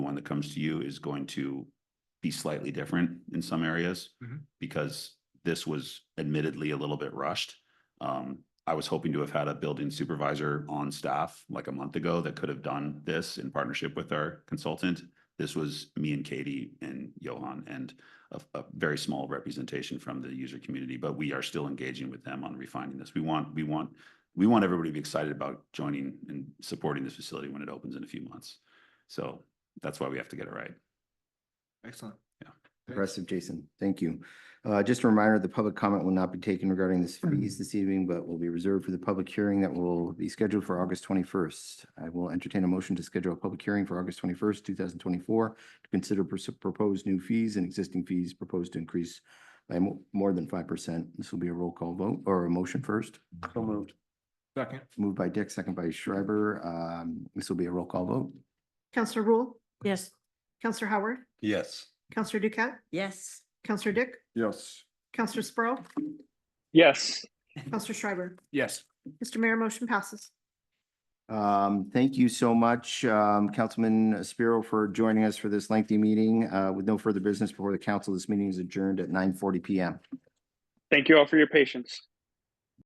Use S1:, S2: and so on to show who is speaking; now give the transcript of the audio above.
S1: that comes to you is going to be slightly different in some areas.
S2: Mhm.
S1: Because this was admittedly a little bit rushed. Um, I was hoping to have had a building supervisor on staff like a month ago that could have done this in partnership with our consultant. This was me and Katie and Johan and a, a very small representation from the user community, but we are still engaging with them on refining this. We want, we want, we want everybody to be excited about joining and supporting this facility when it opens in a few months. So that's why we have to get it right.
S2: Excellent.
S3: Impressive, Jason. Thank you. Uh, just a reminder, the public comment will not be taken regarding this
S2: Hmm.
S3: fees this evening, but will be reserved for the public hearing that will be scheduled for August twenty-first. I will entertain a motion to schedule a public hearing for August twenty-first, two thousand twenty-four to consider pers- proposed new fees and existing fees proposed to increase by mo- more than five percent. This will be a roll call vote or a motion first.
S2: So moved. Second.
S3: Moved by Dick, second by Schreiber. Um, this will be a roll call vote.
S4: Counselor Rule,
S5: Yes.
S4: Counselor Howard,
S2: Yes.
S4: Counselor Ducat,
S5: Yes.
S4: Counselor Dick,
S2: Yes.
S4: Counselor Sprow,
S6: Yes,
S4: Counselor Schreiber.
S2: Yes.
S4: Mr. Mayor, motion passes.
S3: Um, thank you so much, um, Councilman Spiro for joining us for this lengthy meeting. Uh, with no further business before the council, this meeting is adjourned at nine forty PM.
S6: thank you all for your patience.